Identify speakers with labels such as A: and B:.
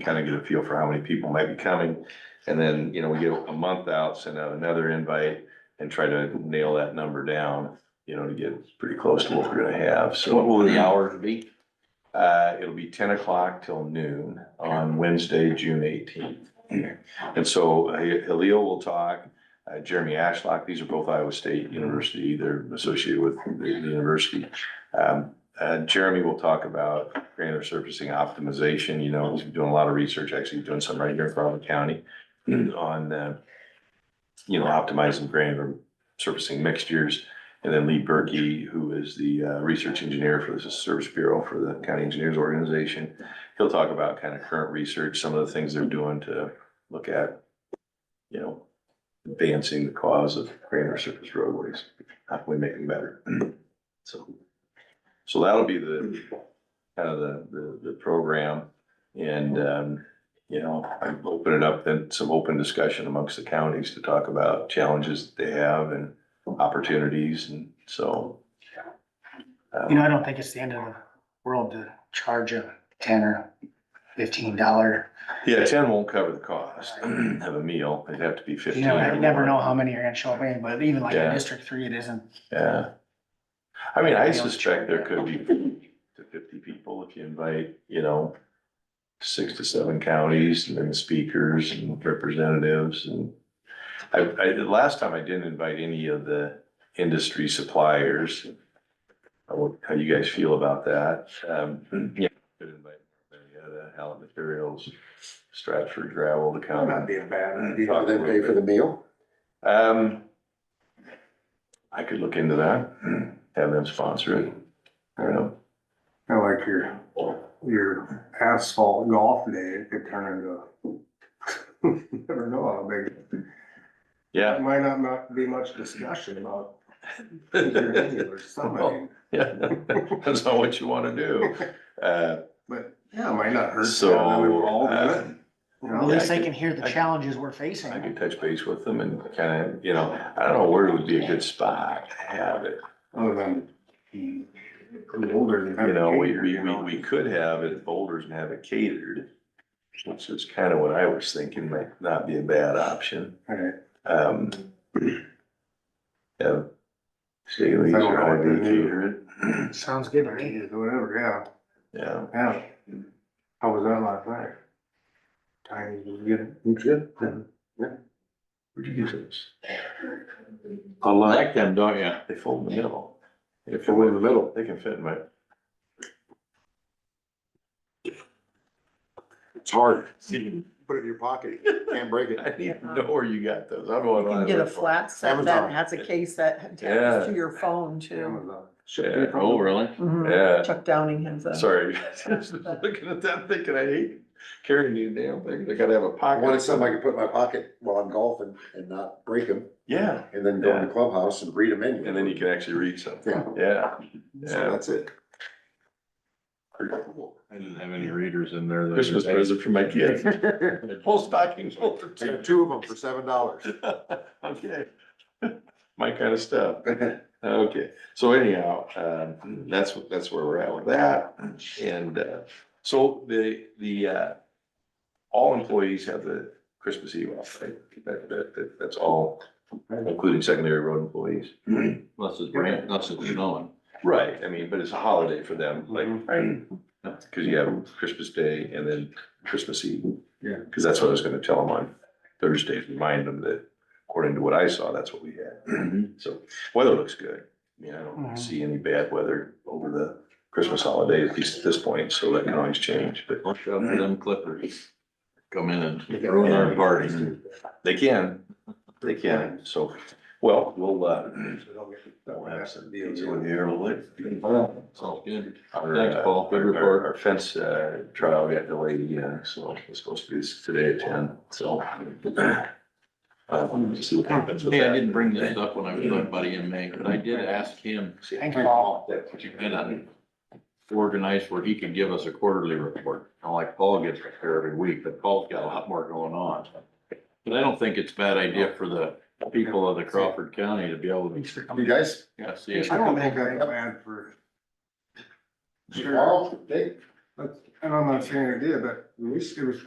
A: kind of get a feel for how many people might be coming. And then, you know, we get a month out, send out another invite and try to nail that number down, you know, to get pretty close to what we're gonna have, so.
B: What will the hours be?
A: Uh, it'll be ten o'clock till noon on Wednesday, June eighteenth. And so uh, Halil will talk, uh, Jeremy Ashlock, these are both Iowa State University, they're associated with the the university. Um, uh, Jeremy will talk about granular surfacing optimization, you know, he's doing a lot of research, actually doing some right here in Crawford County on, uh, you know, optimizing granular surfacing mixtures. And then Lee Berkey, who is the uh, research engineer for the Service Bureau for the County Engineers Organization. He'll talk about kind of current research, some of the things they're doing to look at, you know, advancing the cause of granular surface roadways, how can we make them better? So, so that'll be the, kind of the, the, the program. And, um, you know, I open it up, then some open discussion amongst the counties to talk about challenges that they have and opportunities and so. um,
C: You know, I don't think it's the end of the world to charge a ten or fifteen dollar.
A: Yeah, ten won't cover the cost of a meal. It'd have to be fifteen.
C: You know,
A: or
C: I never
A: more.
C: know how many are gonna show up in, but even like
A: Yeah.
C: in District Three, it isn't.
A: Yeah. I mean, I
C: They don't
A: suspect there
C: charge
A: could be 40 to fifty people if you invite, you know, six to seven counties and then the speakers and representatives and I, I, the last time I didn't invite any of the industry suppliers. I wonder how you guys feel about that. Um, yeah, could invite Marietta, Allen Materials, Stratford Gravel to come.
D: That'd be a bad
A: idea. Do they pay for
D: the meal?
A: Um, I could look into that, have them sponsor it. I don't know.
D: I like your, your asphalt golf day, it could turn into, you never know how big.
A: Yeah.
D: It might not, not be much discussion about your angular something,
A: Yeah, that's not what you wanna do. Uh,
D: but yeah, it might not hurt. to
A: so.
D: have them all do
A: uh,
D: it, you
C: At
D: know?
C: least
A: I
C: they
A: could-
C: can hear the
A: I-
C: challenges we're
A: I
C: facing.
A: could touch base with them and kinda, you know, I don't know where would be a good spot to have it.
D: Other than, mm, older than.
A: You know, we, we, we, we could have it at Boulders and have it catered. Which is kinda what I was thinking might not be a bad option.
D: Right.
A: Um. Yeah. Staley's
D: Sounds
A: or
D: like
A: Holiday
D: they need
A: Catered.
C: Sounds good to me.
D: Ideas, Whatever,
A: Yeah,
D: yeah, yeah. How was that last night? Time, you get it? You good?
A: where'd you get those?
B: I like them, don't you?
A: They fold in the middle. They
D: From in
A: fold,
D: the middle.
A: they can fit in my,
D: It's hard. Put it in your pocket, can't break it.
A: I need to know where you got those. I'm going.
E: You can get a flat set
D: Amazon.
E: that has a case that
A: Yeah.
E: attaches to your phone too.
A: Yeah,
B: Oh, really?
E: Mhm.
A: Yeah,
E: Chuck Downing has a.
A: sorry. I was Looking at that thinking, I hate carrying these damn things. I gotta have a
F: I
A: pocket.
F: wanted something I could put in my pocket while I'm golfing and not break them,
A: Yeah,
F: and then go in the clubhouse and read them in.
A: and then you can actually read something.
F: Yeah,
A: Yeah,
F: so
A: yeah.
F: that's it.
B: I didn't have any readers in there. the other
A: Christmas
B: day.
A: present for my kids. Whole stocking full for
F: I got
A: two.
F: two of them for seven dollars.
A: Okay. My kind of stuff. Okay, so anyhow, um, that's, that's where we're at with that. And, uh, so the, the, uh, all employees have the Christmas Eve off, right? That, that, that- that's all, including secondary road employees.
B: Unless it's rain, unless it's snowing.
A: Right, I mean, but it's a holiday for them, like, Mm-hmm. uh, cause you have Christmas Day and then Christmas Eve.
D: Yeah.
A: Cause that's what I was gonna tell them on Thursday, remind them that according to what I saw, that's what we had. So weather looks good. I mean, I don't
C: Mhm.
A: see any bad weather over the Christmas holiday, at least at this point, so that can always change, but
B: Watch out for them clippers. Come in and ruin
A: Mm-hmm.
B: our party.
A: they can, they can, so, well, we'll, uh, we'll have some deals in here a little bit.
B: Sounds good.
A: Our,
B: Thanks,
A: uh,
B: Paul. Good
A: our-
B: report.
A: Our, our fence, uh, trial got delayed again, so it's supposed to be today at ten, so. Uh, we'll see what happens with
B: Hey, I
A: that.
B: didn't bring this up when I was with Buddy in May, but I did ask him
C: Thanks, Paul.
B: if you had a organized where he could give us a quarterly report. Now, like Paul gets it here every week, but Paul's got a lot more going on. But I don't think it's a bad idea for the people of the Crawford County to be able to,
F: You guys,
B: yeah, see it.
D: I don't think that's bad for. Sure,
F: tomorrow, Dave?
D: That's- and I'm not saying it did, but at least it was